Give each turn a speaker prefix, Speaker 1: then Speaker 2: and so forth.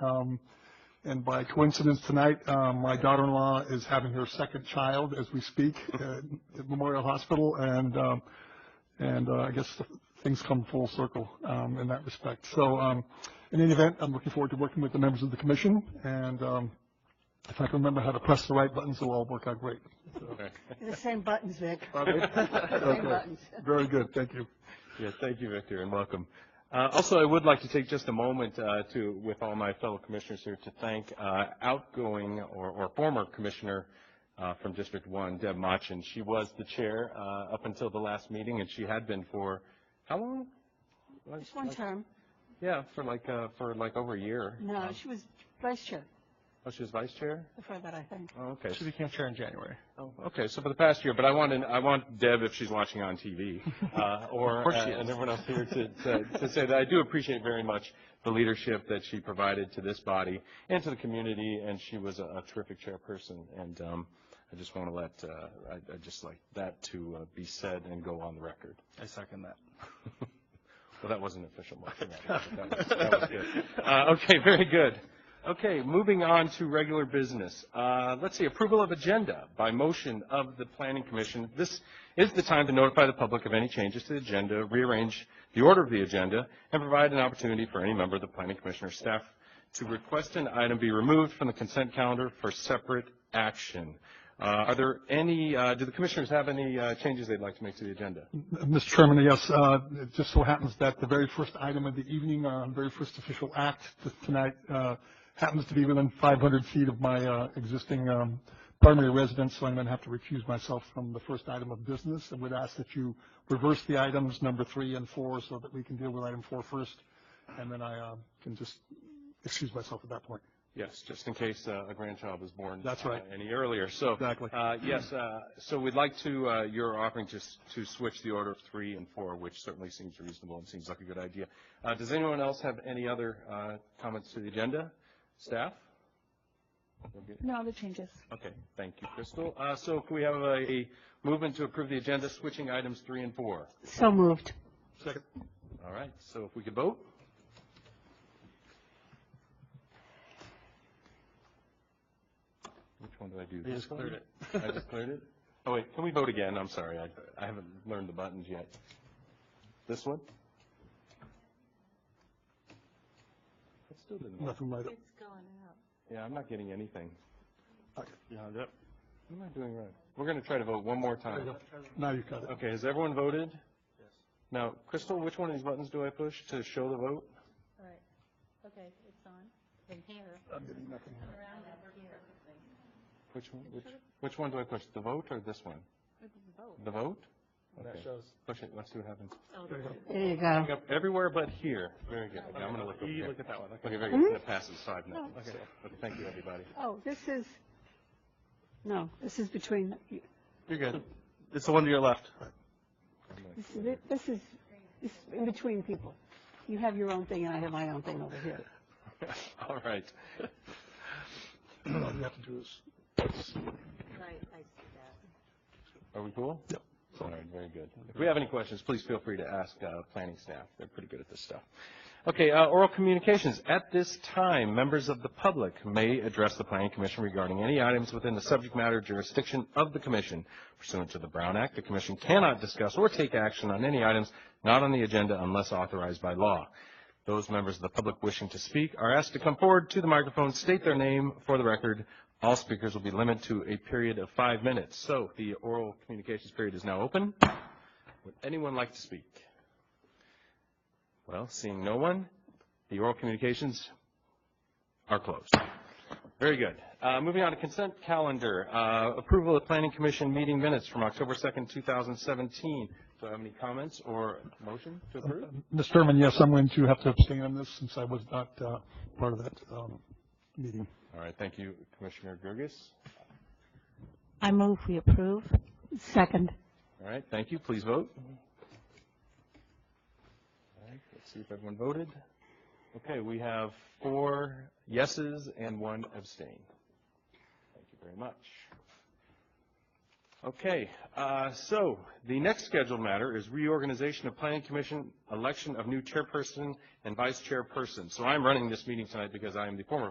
Speaker 1: Um, and by coincidence tonight, um, my daughter-in-law is having her second child as we speak at at Memorial Hospital, and, um, and, uh, I guess things come full circle, um, in that respect. So, um, in any event, I'm looking forward to working with the members of the commission, and, um, if I can remember how to press the right buttons, it'll all work out great.
Speaker 2: The same buttons, Vic.
Speaker 3: Oh,
Speaker 2: Same
Speaker 1: Okay.
Speaker 2: buttons.
Speaker 1: Very good, thank you.
Speaker 4: Yeah, thank you, Victor, and welcome. Uh, Also, I would like to take just a moment uh, to, with all my fellow commissioners here, to thank uh, outgoing or or former commissioner uh, from District 1, Deb Machin. She was the chair uh, up until the last meeting, and she had been for, how long?
Speaker 2: Just one term.
Speaker 4: Yeah, for like, uh, for like over a year.
Speaker 2: No,
Speaker 3: Oh.
Speaker 2: she was vice chair
Speaker 4: Oh, she was vice chair?
Speaker 2: before that, I think.
Speaker 4: Oh, okay.
Speaker 5: She became chair in January.
Speaker 4: Oh, Okay, so for the past year, but I want, to- I want Deb, if she's watching on TV, uh, or,
Speaker 5: Of course
Speaker 4: uh,
Speaker 5: she is.
Speaker 4: and everyone else here to, to, to say that I do appreciate very much the leadership that she provided to this body and to the community, and she was a a terrific chairperson, and, um, I just want to let, uh, I, I just like that to uh, be said and go on the record.
Speaker 5: I second that.
Speaker 4: Well, that wasn't an official motion. That was, that was good. Uh, okay, very good. Okay, moving on to regular business. Uh, let's see, approval of agenda by motion of the Planning Commission. This is the time to notify the public of any changes to the agenda, rearrange the order of the agenda, and provide an opportunity for any member of the Planning Commission or staff to request an item be removed from the consent calendar for separate action. Uh, are there any, uh, do the commissioners have any uh, changes they'd like to make to the agenda?
Speaker 1: Mr. Chairman, yes, uh, it just so happens that the very first item of the evening, uh, very first official act t- tonight, uh, happens to be within 500 feet of my uh, existing um, primary residence, so I'm going to have to recuse myself from the first item of business, and would ask that you reverse the items number three and four, so that we can deal with item four first, and then I uh, can just excuse myself at that point.
Speaker 4: Yes, just in case uh, a grandchild was born.
Speaker 1: That's right.
Speaker 4: uh, Any earlier, so.
Speaker 1: Exactly.
Speaker 4: uh, Yes, uh, so we'd like to, uh, you're offering just to switch the order of three and four, which certainly seems reasonable and seems like a good idea. Uh, Does anyone else have any other uh, comments to the agenda? Staff? Okay.
Speaker 3: No other changes.
Speaker 4: Okay, thank you, Crystal. Uh, So can we have a a movement to approve the agenda, switching items three and four?
Speaker 2: So moved.
Speaker 1: Second.
Speaker 4: All right, so if we could vote? Which one did I do?
Speaker 5: You just cleared it.
Speaker 4: I just cleared it? Oh, wait, can we vote again? I'm sorry, I, I haven't learned the buttons yet. This one? It still didn't work.
Speaker 1: Nothing right up.
Speaker 4: Yeah, I'm not getting anything.
Speaker 5: Uh, Yeah, yep.
Speaker 4: What am I doing right? We're going to try to vote one more
Speaker 1: There you
Speaker 4: time.
Speaker 1: go. Now you've got it.
Speaker 4: Okay, has everyone voted? Now, Crystal, which one of these buttons do I push to show the vote?
Speaker 6: All right, okay, it's on, in here,
Speaker 1: I'm getting nothing.
Speaker 6: around up here.
Speaker 4: Which one, which, which one do I push, the vote or this one?
Speaker 6: This is vote.
Speaker 4: The vote?
Speaker 5: That
Speaker 4: Okay.
Speaker 5: shows.
Speaker 4: Push it, let's see what happens.
Speaker 6: Oh,
Speaker 1: There you go.
Speaker 2: There you go.
Speaker 4: Look up Everywhere but here. Very good. Okay, I'm gonna look over
Speaker 5: You
Speaker 4: here.
Speaker 5: look at that one, okay.
Speaker 4: Okay, very good. That passes five nothing.
Speaker 5: Okay.
Speaker 4: So, okay, Thank you, everybody.
Speaker 2: Oh, this is, no, this is between,
Speaker 5: You're good. It's the one to your left.
Speaker 2: this is, this is this is in between people. You have your own thing and I have my own thing over here.
Speaker 4: All right.
Speaker 1: All you have to do is
Speaker 6: Right, I see that.
Speaker 4: Are we cool? Yep. All right, very good. If we have any questions, please feel free to ask uh, planning staff. They're pretty good at this stuff. Okay, uh, oral communications. At this time, members of the public may address the planning commission regarding any items within the subject matter jurisdiction of the commission. Pursuant to the Brown Act, the commission cannot discuss or take action on any items not on the agenda unless authorized by law. Those members of the public wishing to speak are asked to come forward to the microphone, state their name for the record. All speakers will be limited to a period of five minutes. So the oral communications period is now open. Would anyone like to speak? Well, seeing no one, the oral communications are closed. Very good. Uh, Moving on to consent calendar, Uh, approval of planning commission meeting minutes from October 2nd, 2017. Do I have any comments or motion to approve?
Speaker 1: Mr. Chairman, yes, I'm going to have to abstain on this since I was not uh, part of that um, meeting.
Speaker 4: All right, thank you, Commissioner Gerges.
Speaker 3: I move we approve.
Speaker 2: Second.
Speaker 4: All right, thank you, please vote. All right, let's see if everyone voted. Okay, we have four yeses and one abstain. Thank you very much. Okay, uh, so the next scheduled matter is reorganization of planning commission, election of new chairperson and vice chairperson. So I'm running this meeting tonight because I am the former